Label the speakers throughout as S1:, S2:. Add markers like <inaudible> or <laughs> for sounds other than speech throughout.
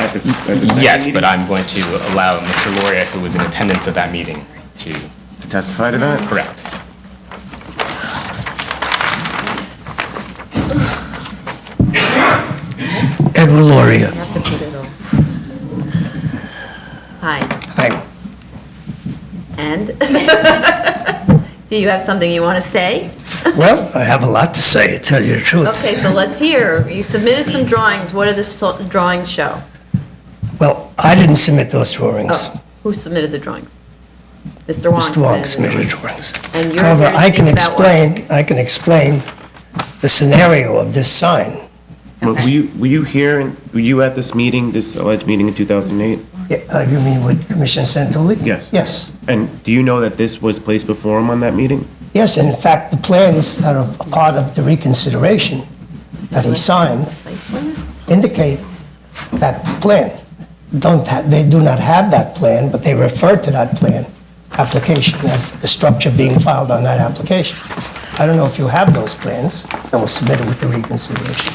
S1: at this, at the second
S2: Yes, but
S1: meeting
S2: I'm going to allow Mr. Loria, who was in attendance at that meeting, to
S1: To testify to that?
S2: correct.
S3: Edward Loria.
S4: have to put it on. Hi,
S3: Hi.
S4: and? <laughs> Do you have something you want to say?
S3: Well, I have a lot to say, to tell you the truth.
S4: Okay, so let's hear. You submitted some drawings. What do the so- drawings show?
S3: Well, I didn't submit those drawings.
S4: Oh, Who submitted the drawings? Mr. Wong.
S3: Mr. Wong
S4: the
S3: submitted
S4: drawings.
S3: drawings.
S4: And you're
S3: However,
S4: here to
S3: I
S4: speak
S3: can
S4: about what?
S3: explain, I can explain the scenario of this sign.
S1: Were were you, were you here, in- were you at this meeting, this alleged meeting in 2008?
S3: Yeah, uh, You mean with Commissioner Santoli?
S1: Yes.
S3: Yes,
S1: And do you know that this was placed before him on that meeting?
S3: yes, and in fact, the plans that are a part of the reconsideration that he signed
S4: The site plan?
S3: indicate that plan. Don't, ha- they do not have that plan, but they refer to that plan application as the structure being filed on that application. I don't know if you have those plans that were submitted with the reconsideration.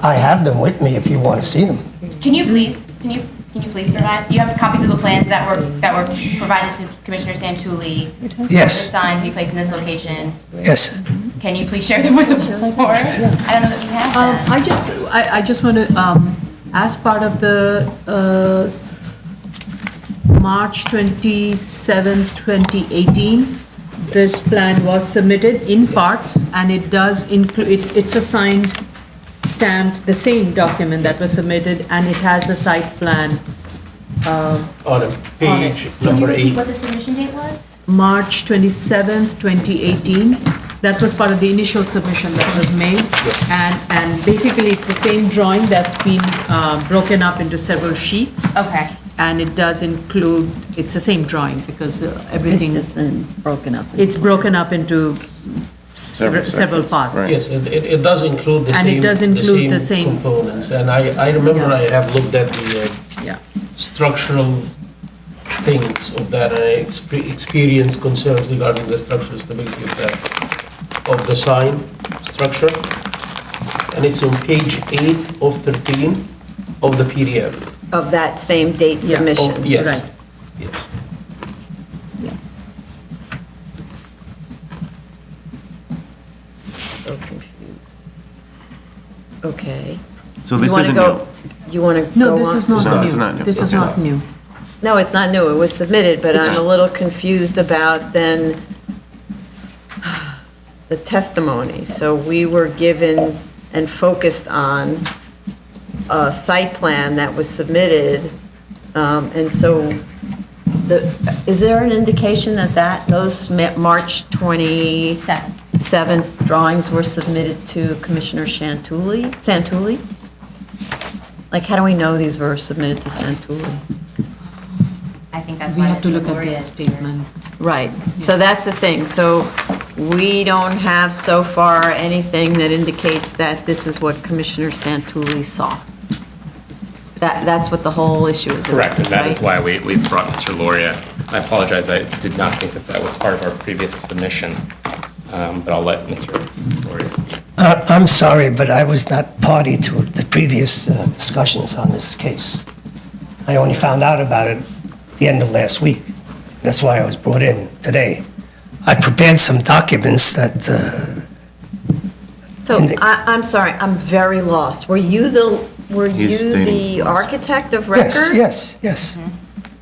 S3: I have them with me if you want to see them.
S5: Can you please, can you, can you please provide, do you have copies of the plans that were, that were provided to Commissioner Santuli?
S3: Yes.
S5: The sign to be placed in this location.
S3: Yes.
S5: Can you please share them with the board? I don't know that we have
S6: Um,
S5: them.
S6: I just, I, I just want to, um, as part of the, uh, s- March 27, 2018, this plan was submitted in parts, and it does include, it's, it's a signed, stamped, the same document that was submitted, and it has a site plan,
S7: on a page
S5: Can you
S7: number
S5: repeat
S7: eight.
S5: what the submission date was?
S6: March 27, 2018. That was part of the initial submission that was made. And, and basically, it's the same drawing that's been uh, broken up into several sheets.
S5: Okay.
S6: And it does include, it's the same drawing because uh,
S4: It's
S6: everything,
S4: just been broken up.
S6: it's broken up into several several parts.
S7: Yes, it, it it does include the same.
S6: And it does include the same-
S7: Components, and I, I remember I have looked at the uh,
S6: Yeah.
S7: structural things of that, and I expe- experienced concerns regarding the structural stability of that, of the sign structure. And it's on page eight of thirteen of the PDF.
S4: Of that same date
S6: Yeah.
S4: submission.
S7: Oh, yes.
S6: Right.
S7: Yes.
S4: So confused. Okay.
S1: So
S4: You
S1: this
S4: want to
S1: isn't new?
S4: go? You want to go
S6: No, this
S4: on?
S6: is not
S1: No,
S6: new.
S1: this is not new.
S6: This is
S1: Okay.
S6: not new.
S4: No, it's not new, it was submitted, but I'm a little confused about then the testimony. So we were given and focused on a site plan that was submitted, um, and so the, is there an indication that that, those Ma- March 27th
S5: Seven.
S4: drawings were submitted to Commissioner Shantuli, Santuli? Like, how do we know these were submitted to Santuli?
S5: I think that's
S6: We
S5: why.
S6: have to
S5: Mr.
S6: look at
S5: Gloria
S6: the
S5: is here.
S6: statement.
S4: Right, so that's the thing, so we don't have so far anything that indicates that this is what Commissioner Santulli saw. That, that's what the whole issue is about,
S2: Correct, and that is
S4: right?
S2: why we, we brought Mr. Loria. I apologize, I did not think that that was part of our previous submission, um, but I'll let Mr. Loria speak.
S3: Uh, I'm sorry, but I was not party to the previous uh, discussions on this case. I only found out about it the end of last week. That's why I was brought in today. I prepared some documents that uh,
S4: So I, I'm sorry, I'm very lost. Were you the, were you
S1: He's stating-
S4: the architect
S3: Yes,
S4: of record?
S3: Yes, yes,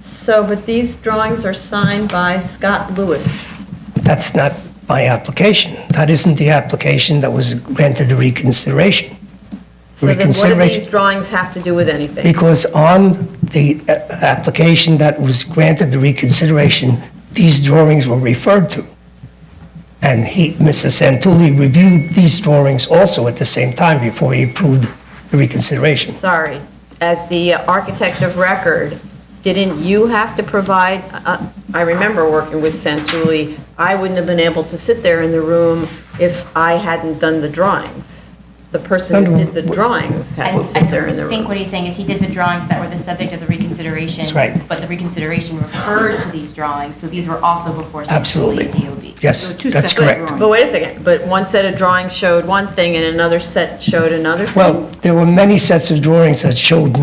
S4: So, but these drawings are signed by Scott Lewis.
S3: That's not my application. That isn't the application that was granted the reconsideration.
S4: So then what do
S3: Reconsideration.
S4: these drawings have to do with anything?
S3: Because on the uh, application that was granted the reconsideration, these drawings were referred to. And he, Mr. Santulli reviewed these drawings also at the same time before he approved the reconsideration.
S4: sorry, as the uh, architect of record, didn't you have to provide, uh, I remember working with Santulli, I wouldn't have been able to sit there in the room if I hadn't done the drawings. The person who did the drawings
S5: I
S4: had to sit there in the
S5: I think what
S4: room.
S5: he's saying is he did the drawings that were the subject of the reconsideration.
S3: That's right.
S5: But the reconsideration referred to these drawings, so these were also before Santuli
S3: Absolutely.
S5: and DOB.
S3: Yes,
S6: two
S3: that's
S6: separate
S3: correct.
S4: But wait a second, but one set of drawings showed one thing and another set showed another thing?
S3: Well, there were many sets of drawings that showed